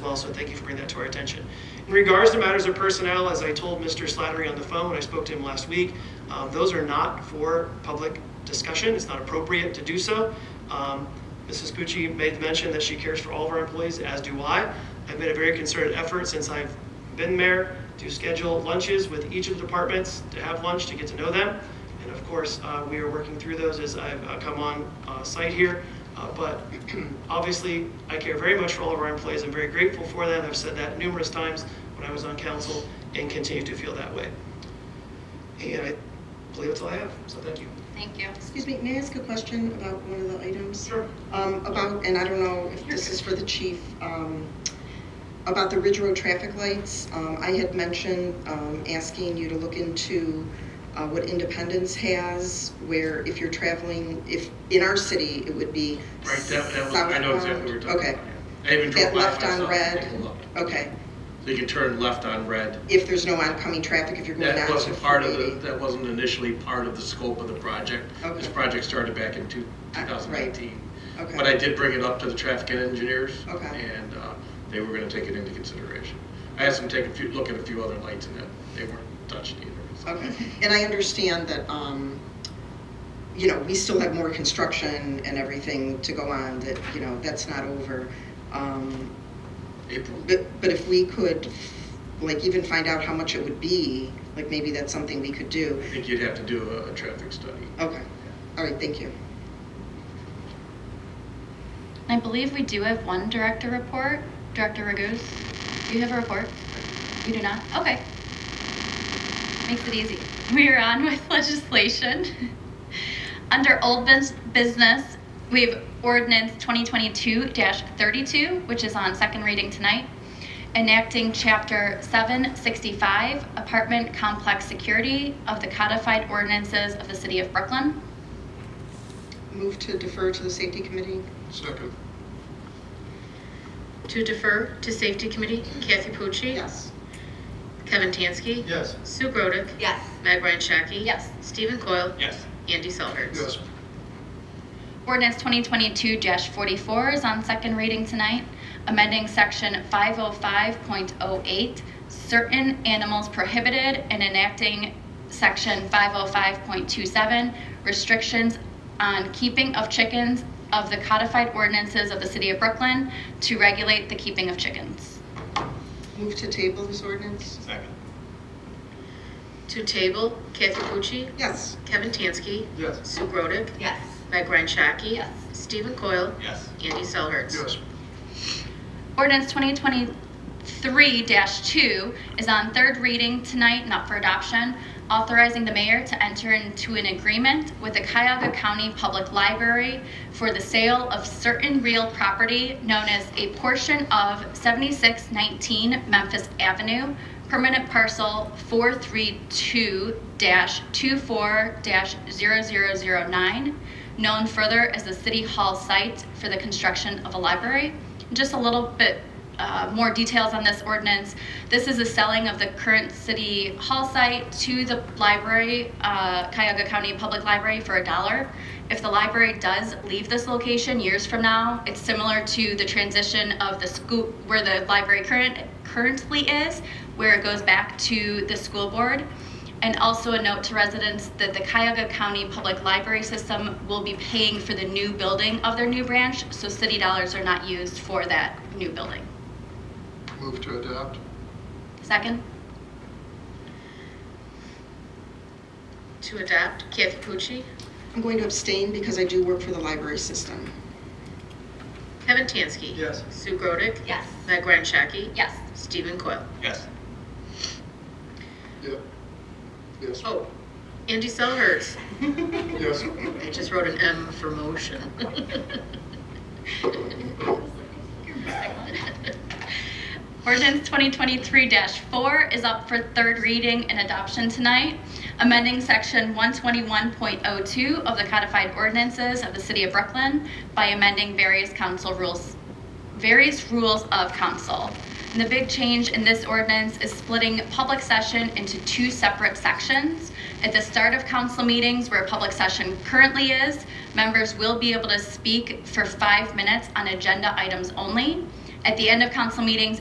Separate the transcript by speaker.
Speaker 1: well, so thank you for bringing that to our attention. In regards to matters of personnel, as I told Mr. Slattery on the phone, when I spoke to him last week, um, those are not for public discussion, it's not appropriate to do so. Um, Mrs. Pucci made the mention that she cares for all of our employees, as do I. I've made a very concerted effort since I've been mayor to schedule lunches with each of the departments, to have lunch, to get to know them. And of course, uh, we are working through those as I've uh, come on uh, site here. Uh, But obviously, I care very much for all of our employees. I'm very grateful for them. I've said that numerous times when I was on council and continue to feel that way. And I believe that's all I have, so thank you.
Speaker 2: Thank you.
Speaker 3: Excuse me, may I ask a question about one of the items?
Speaker 1: Sure.
Speaker 3: Um, About, and I don't know if this is for the chief, um, about the Ridge Road traffic lights. Um, I had mentioned um, asking you to look into uh, what Independence has, where if you're traveling, if, in our city, it would be
Speaker 4: Right, that, that was, I know exactly what you're talking about.
Speaker 3: Okay.
Speaker 4: yeah. I even drove
Speaker 3: That
Speaker 4: by
Speaker 3: left on
Speaker 4: myself.
Speaker 3: red?
Speaker 4: Take a look.
Speaker 3: Okay,
Speaker 4: So you can turn left on red.
Speaker 3: if there's no oncoming traffic, if you're going down
Speaker 4: That
Speaker 3: to
Speaker 4: wasn't part of
Speaker 3: 480.
Speaker 4: the, that wasn't initially part of the scope of the project.
Speaker 3: Okay.
Speaker 4: This project started back in two-
Speaker 3: Ah, right.
Speaker 4: 2019.
Speaker 3: Okay.
Speaker 4: But I did bring it up to the traffic engineers.
Speaker 3: Okay.
Speaker 4: And uh, they were going to take it into consideration. I asked them to take a few, look at a few other lights and that they weren't touched either. so.
Speaker 3: Okay, and I understand that, um, you know, we still have more construction and everything to go on, that, you know, that's not over. Um,
Speaker 4: April,
Speaker 3: But, but if we could, like, even find out how much it would be, like, maybe that's something we could do.
Speaker 4: I think you'd have to do a, a traffic study.
Speaker 3: Okay, all right, thank you.
Speaker 2: I believe we do have one director report. Director Raguse, do you have a report? You do not? Okay. Makes it easy. We are on with legislation. Under old bus- business, we have ordinance 2022-32, which is on second reading tonight, enacting Chapter 765, Apartment Complex Security of the Codified Ordinances of the City of Brooklyn.
Speaker 3: Move to defer to the safety committee?
Speaker 4: Second.
Speaker 5: To defer to Safety Committee, Kathy Pucci.
Speaker 3: Yes.
Speaker 5: Kevin Tansky.
Speaker 4: Yes.
Speaker 5: Sue Grodick.
Speaker 2: Yes.
Speaker 5: Meg Ryan Shaki.
Speaker 2: Yes.
Speaker 5: Stephen Coyle.
Speaker 4: Yes.
Speaker 5: Andy Selhertz.
Speaker 4: Yes.
Speaker 2: Ordinance 2022-44 is on second reading tonight, amending Section 505.08, certain animals prohibited, and enacting Section 505.27, restrictions on keeping of chickens of the codified ordinances of the City of Brooklyn to regulate the keeping of chickens.
Speaker 3: Move to table this ordinance?
Speaker 4: Second.
Speaker 5: To table, Kathy Pucci.
Speaker 3: Yes.
Speaker 5: Kevin Tansky.
Speaker 4: Yes.
Speaker 5: Sue Grodick.
Speaker 2: Yes.
Speaker 5: Meg Ryan Shaki.
Speaker 2: Yes.
Speaker 5: Stephen Coyle.
Speaker 4: Yes.
Speaker 5: Andy Selhertz.
Speaker 4: Yes.
Speaker 2: Ordinance 2023-2 is on third reading tonight and up for adoption, authorizing the mayor to enter into an agreement with the Cuyahoga County Public Library for the sale of certain real property known as a portion of 7619 Memphis Avenue, permanent parcel 432-24-0009, known further as the City Hall site for the construction of a library. Just a little bit uh, more details on this ordinance. This is a selling of the current City Hall site to the library, uh, Cuyahoga County Public Library, for a dollar. If the library does leave this location years from now, it's similar to the transition of the school, where the library current, currently is, where it goes back to the school board. And also a note to residents that the Cuyahoga County Public Library System will be paying for the new building of their new branch, so city dollars are not used for that new building.
Speaker 4: Move to adopt.
Speaker 2: Second?
Speaker 5: To adopt, Kathy Pucci.
Speaker 3: I'm going to abstain because I do work for the library system.
Speaker 5: Kevin Tansky.
Speaker 4: Yes.
Speaker 5: Sue Grodick.
Speaker 2: Yes.
Speaker 5: Meg Ryan Shaki.
Speaker 2: Yes.
Speaker 5: Stephen Coyle.
Speaker 4: Yes. Yep. Yes.
Speaker 5: Oh, Andy Selhertz.
Speaker 4: Yes.
Speaker 5: I just wrote an M for motion.
Speaker 2: Ordinance 2023-4 is up for third reading and adoption tonight, amending Section 121.02 of the codified ordinances of the City of Brooklyn by amending various council rules, various rules of council. And the big change in this ordinance is splitting public session into two separate sections. At the start of council meetings, where public session currently is, members will be able to speak for five minutes on agenda items only. At the end of council meetings